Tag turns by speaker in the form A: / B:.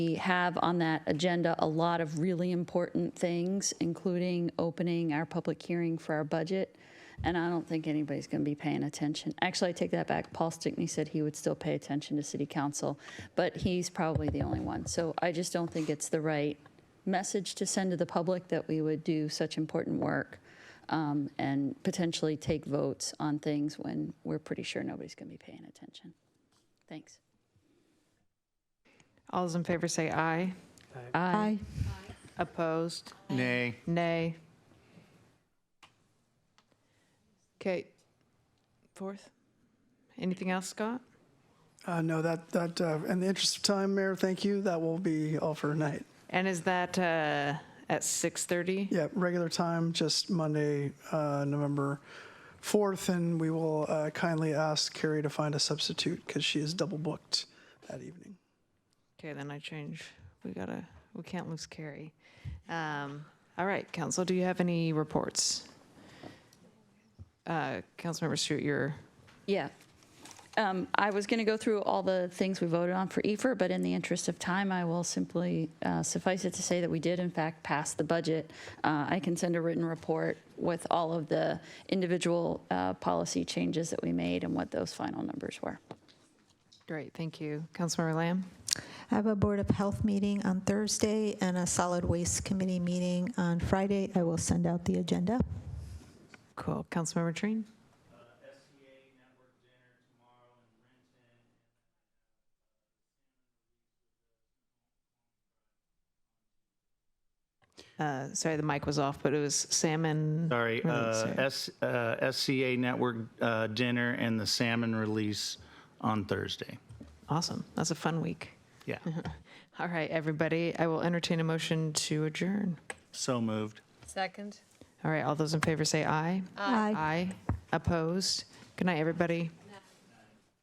A: We have on that agenda a lot of really important things, including opening our public hearing for our budget. And I don't think anybody's going to be paying attention. Actually, I take that back. Paul Stickney said he would still pay attention to city council, but he's probably the only one. So I just don't think it's the right message to send to the public that we would do such important work um, and potentially take votes on things when we're pretty sure nobody's going to be paying attention. Thanks.
B: All those in favor say aye.
A: Aye.
B: Opposed?
C: Nay.
B: Nay. Okay. Fourth? Anything else, Scott?
D: Uh, no, that, that, uh, in the interest of time, Mayor, thank you. That will be all for tonight.
B: And is that uh, at 6:30?
D: Yeah, regular time, just Monday, uh, November 4th, and we will uh, kindly ask Carrie to find a substitute because she is double booked that evening.
B: Okay, then I change. We gotta, we can't lose Carrie. Um, All right, council, do you have any reports? Uh, Councilmember Stewart, you're,
A: Yeah. Um, I was going to go through all the things we voted on for EFR, but in the interest of time, I will simply uh, suffice it to say that we did in fact pass the budget. Uh, I can send a written report with all of the individual uh, policy changes that we made and what those final numbers were.
B: great, thank you. Councilmember Lamb?
E: I have a Board of Health meeting on Thursday and a Solid Waste Committee meeting on Friday. I will send out the agenda.
B: Cool. Councilmember Uh, Trine? Uh, Sorry, the mic was off, but it was salmon.
C: Sorry, uh,
B: release, yeah.
C: S- uh, SCA Network uh, dinner and the salmon release on Thursday.
B: Awesome. That's a fun week.
C: Yeah,
B: All right, everybody, I will entertain a motion to adjourn.
C: so moved.
F: Second.
B: All right, all those in favor say aye.
E: Aye.
B: Aye. Opposed? Good night, everybody.